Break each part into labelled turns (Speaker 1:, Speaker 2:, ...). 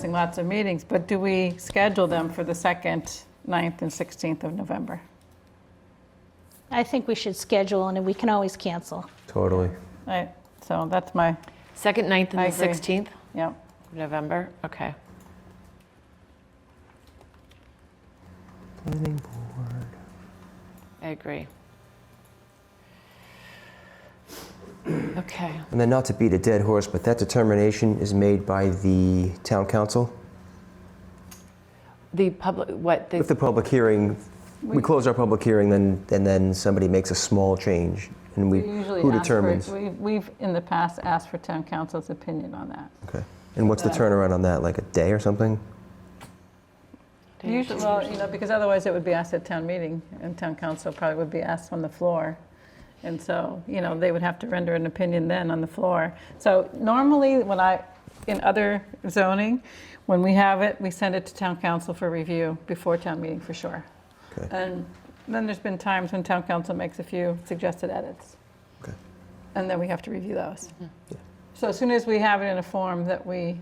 Speaker 1: missing lots of meetings, but do we schedule them for the 2nd, 9th, and 16th of November?
Speaker 2: I think we should schedule, and we can always cancel.
Speaker 3: Totally.
Speaker 1: Right, so that's my,
Speaker 4: Second, 9th,
Speaker 1: I
Speaker 4: and the
Speaker 1: agree.
Speaker 4: 16th
Speaker 1: yeah.
Speaker 4: of November? Okay.
Speaker 3: Planning board.
Speaker 4: I agree. Okay.
Speaker 3: And then not to beat a dead horse, but that determination is made by the town council.
Speaker 4: The public, what,
Speaker 3: If
Speaker 4: the,
Speaker 3: the public hearing, we close our public hearing, then, and then somebody makes a small change. And we,
Speaker 1: usually
Speaker 3: who
Speaker 1: ask for-
Speaker 3: determines?
Speaker 1: we- We've, in the past, asked for town council's opinion on that.
Speaker 3: Okay. And what's the
Speaker 1: Yeah.
Speaker 3: turnaround on that, like a day or something?
Speaker 1: Usually, well, you know, because otherwise it would be asked at town meeting, and town council probably would be asked on the floor. And so, you know, they would have to render an opinion then on the floor. So normally, when I, in other zoning, when we have it, we send it to town council for review before town meeting for sure.
Speaker 3: Okay.
Speaker 1: And then there's been times when town council makes a few suggested edits.
Speaker 3: Okay.
Speaker 1: And then we have to review those. So as soon as we have it in a form that we,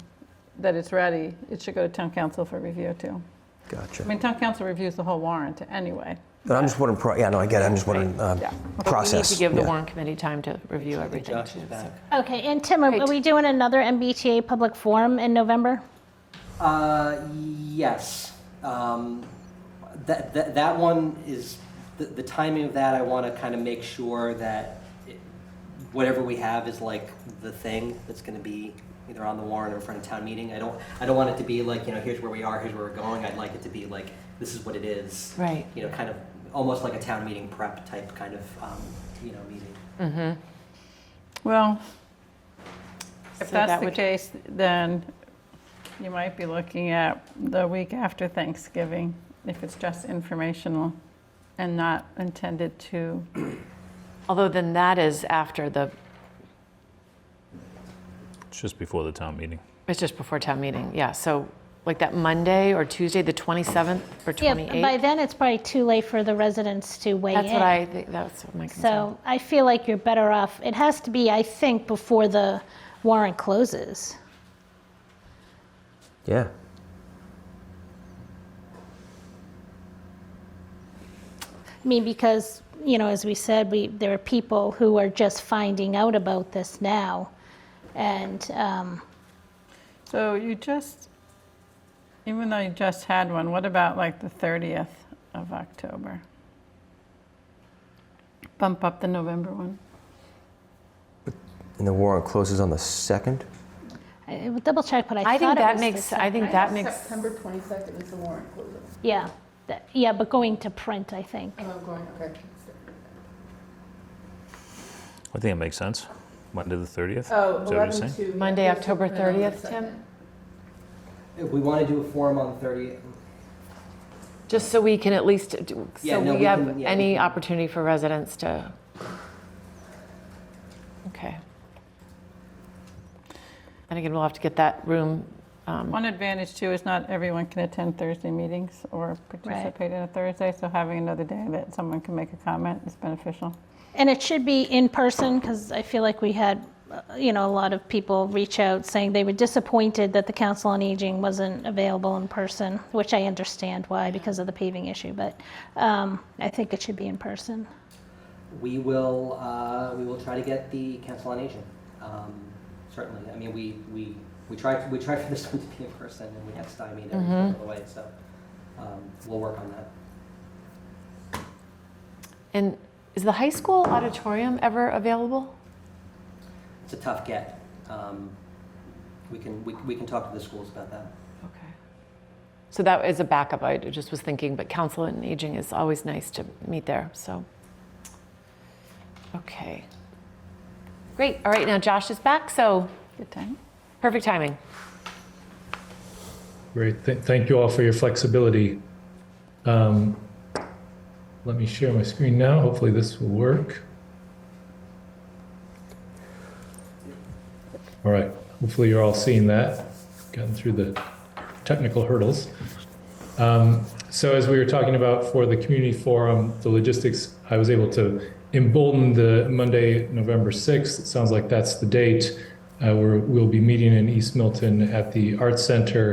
Speaker 1: that it's ready, it should go to town council for review too.
Speaker 3: Gotcha.
Speaker 1: I mean, town council reviews the whole warrant anyway.
Speaker 3: But I'm just wondering, pro- yeah, no, I get it. I'm just wondering, uh,
Speaker 1: Yeah.
Speaker 3: process.
Speaker 4: We need to give the
Speaker 3: yeah.
Speaker 4: warrant committee time to review everything. too, so-
Speaker 2: Okay, and Tim, are are we doing another MBTA public forum in November?
Speaker 5: Uh, yes. Um, that, that, that one is, the, the timing of that, I want to kind of make sure that it- whatever we have is like the thing that's going to be either on the warrant or in front of town meeting. I don't, I don't want it to be like, you know, here's where we are, here's where we're going. I'd like it to be like, this is what it is.
Speaker 4: Right.
Speaker 5: You know, kind of, almost like a town meeting prep type kind of, um, you know, meeting.
Speaker 1: Well, if
Speaker 4: So that
Speaker 1: that's the
Speaker 4: would-
Speaker 1: case, then you might be looking at the week after Thanksgiving, if it's just informational and not intended to,
Speaker 4: Although then that is after the,
Speaker 6: It's just before the town meeting.
Speaker 4: it's just before town meeting, yeah. So like that Monday or Tuesday, the 27th or
Speaker 2: Yeah,
Speaker 4: 28th?
Speaker 2: by then, it's probably too late for the residents to weigh in.
Speaker 4: That's what I, think. that's what my concern.
Speaker 2: So I feel like you're better off, it has to be, I think, before the warrant closes.
Speaker 3: Yeah.
Speaker 2: I mean, because, you know, as we said, we, there are people who are just finding out about this now. And, um,
Speaker 1: so you just, even though you just had one, what about like the 30th of October? Bump up the November one.
Speaker 3: And the warrant closes on the second?
Speaker 2: I I will double check, but I thought it was.
Speaker 4: I think that
Speaker 2: the
Speaker 4: makes,
Speaker 2: same-
Speaker 4: I think that makes,
Speaker 7: September 22nd is the warrant closing.
Speaker 2: Yeah, that- yeah, but going to print, I think.
Speaker 7: Oh, I'm going, okay.
Speaker 6: I think it makes sense. Monday the 30th? Is
Speaker 7: Oh,
Speaker 6: that what you're saying?
Speaker 7: 11 to.
Speaker 4: Monday,
Speaker 7: it's
Speaker 4: October
Speaker 7: open on the
Speaker 4: 30th,
Speaker 7: second.
Speaker 4: Tim?
Speaker 5: If we want to do a forum on the 30th,
Speaker 4: just so we can at least, do-
Speaker 5: Yeah,
Speaker 4: so
Speaker 5: no,
Speaker 4: we
Speaker 5: we
Speaker 4: have
Speaker 5: can- yeah, we
Speaker 4: any
Speaker 5: can-
Speaker 4: opportunity for residents to, okay. And again, we'll have to get that room, um,
Speaker 1: One advantage too is not everyone can attend Thursday meetings or participate in a Thursday, so having another day that someone can make a comment is beneficial.
Speaker 2: And it should be in person, because I feel like we had, uh, you know, a lot of people reach out saying they were disappointed that the Council on Aging wasn't available in person, which I understand why, because of the paving issue, but um, I think it should be in person.
Speaker 5: We will, uh, we will try to get the Council on Aging, um, certainly. I mean, we, we, we tried, we tried for this one to be in person, and we got stymied every step of the way, so, um, we'll work on that.
Speaker 4: And is the high school auditorium ever available?
Speaker 5: It's a tough get. Um, we can, we, we can talk to the schools about that.
Speaker 4: Okay. So that is a backup. I just was thinking, but Council on Aging is always nice to meet there. So, okay. Great. All right. Now Josh is back. So
Speaker 1: Good time.
Speaker 4: perfect timing.
Speaker 8: Great. Th- Thank you all for your flexibility. Um, Let me share my screen now. Hopefully this will work. All right. Hopefully you're all seeing that. Gotten through the technical hurdles. Um, So as we were talking about for the community forum, the logistics, I was able to embolden the Monday, November 6th. It sounds like that's the date. Uh, We're, we'll be meeting in East Milton at the Arts Center